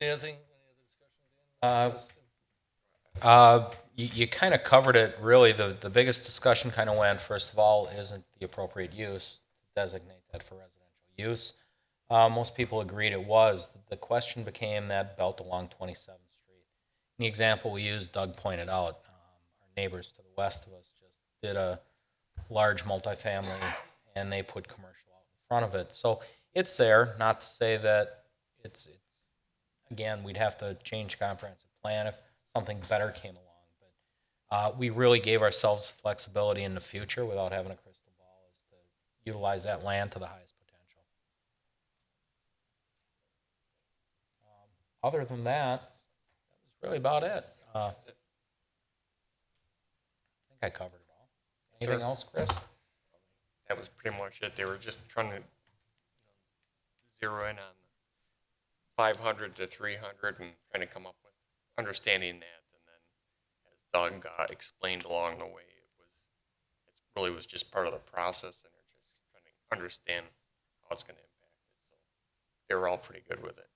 Anything? Uh, uh, You, you kind of covered it, really. The, the biggest discussion kind of went, first of all, isn't the appropriate use to designate that for residential use? Uh, Most people agreed it was. The question became that belt along 27th Street. The example we used, Doug pointed out, um, our neighbors to the west of us just did a large multifamily, and they put commercial out in front of it. So it's there, not to say that it's, it's again, we'd have to change comprehensive plan if something better came along. But uh, we really gave ourselves flexibility in the future without having a crystal ball is to utilize that land to the highest potential. Um, Other than that, that was really about it. Uh, I think I covered it all. Anything Sir. else, Chris? that was pretty much it. They were just trying to you know, zero in on 500 to 300 and trying to come up with understanding that. And then, as Doug uh, explained along the way, it was it really was just part of the process, and they're just trying to understand how it's going to impact it. So they were all pretty good with it.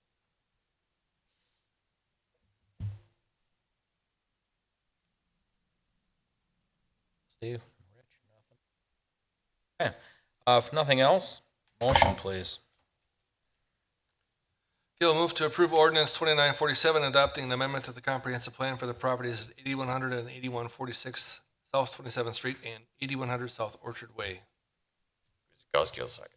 Steve, Rich, nothing? Okay, Uh, if nothing else, motion, please. Okay, we'll move to approve ordinance twenty-nine forty-seven, adopting an amendment to the comprehensive plan for the properties at eighty-one hundred and eighty-one forty-sixth South Twenty-seventh Street and eighty-one hundred South Orchard Way. Guzekowski will second.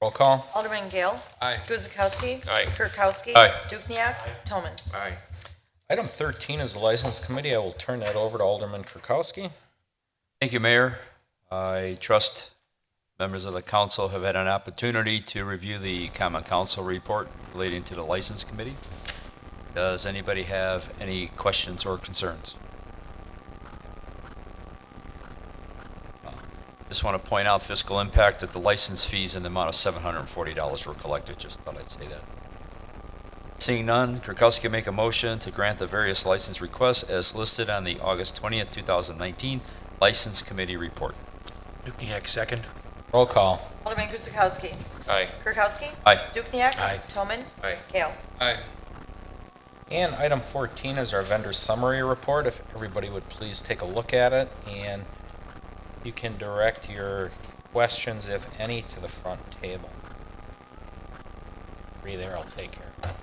Roll call. Alderman Gale. Aye. Guzekowski. Aye. Kirkowski. Aye. Dukenyak. Toman. Aye. Item 13 is the License Committee. I will turn that over to Alderman Kirkowski. Thank you, Mayor. I trust members of the council have had an opportunity to review the common council report relating to the license committee. Does anybody have any questions or concerns? Just want to point out fiscal impact that the license fees in the amount of $740 were collected. Just thought I'd say that. Seeing none, Kirkowski make a motion to grant the various license requests as listed on the August 20th, 2019 License Committee Report. Roll call. Alderman Guzekowski. Aye. Kirkowski. Aye. Dukenyak. Aye. Toman. Aye. Gale. Aye. And item 14 is our vendor summary report. If everybody would please take a look at it, and you can direct your questions, if any, to the front table. Be there, I'll take care of it.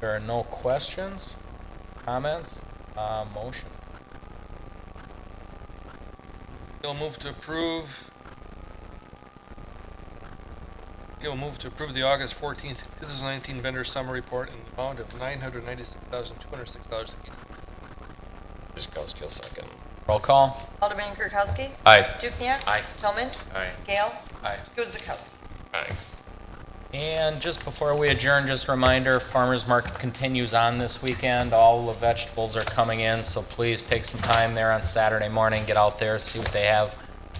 There are no questions, comments, uh, motion. We'll move to approve. Okay, we'll move to approve the August fourteenth, two thousand nineteen vendor summary report in the amount of nine hundred ninety-six thousand, two hundred six dollars. Guzekowski will second. Roll call. Alderman Kirkowski. Aye. Dukenyak. Aye. Toman. Aye. Gale. Aye. Guzekowski. Aye. And just before we adjourn, just a reminder, farmer's market continues on this weekend. All the vegetables are coming in, so please take some time there on Saturday morning, get out there, see what they have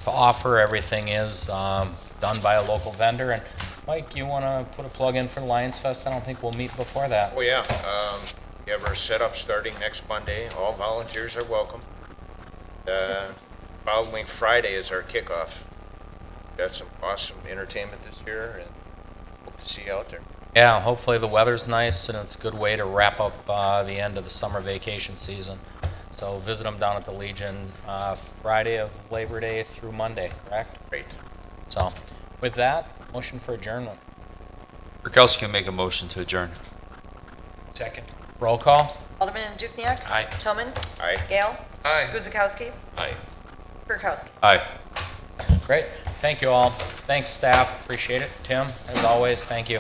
to offer. Everything is um, done by a local vendor. And Mike, you want to put a plug in for Lions Fest? I don't think we'll meet before that. Oh, yeah. Um, We have our setup starting next Monday. All volunteers are welcome. Uh, Following Friday is our kickoff. Got some awesome entertainment this year and hope to see you out there. Yeah, hopefully the weather's nice and it's a good way to wrap up uh, the end of the summer vacation season. So visit them down at the Legion uh, Friday of Labor Day through Monday, correct? Great. So with that, motion for adjournment. Kirkowski can make a motion to adjourn. Roll call. Alderman Dukenyak. Aye. Toman. Aye. Gale. Aye. Guzekowski. Aye. Kirkowski. Aye. Great. Thank you all. Thanks, staff. Appreciate it. Tim, as always, thank you.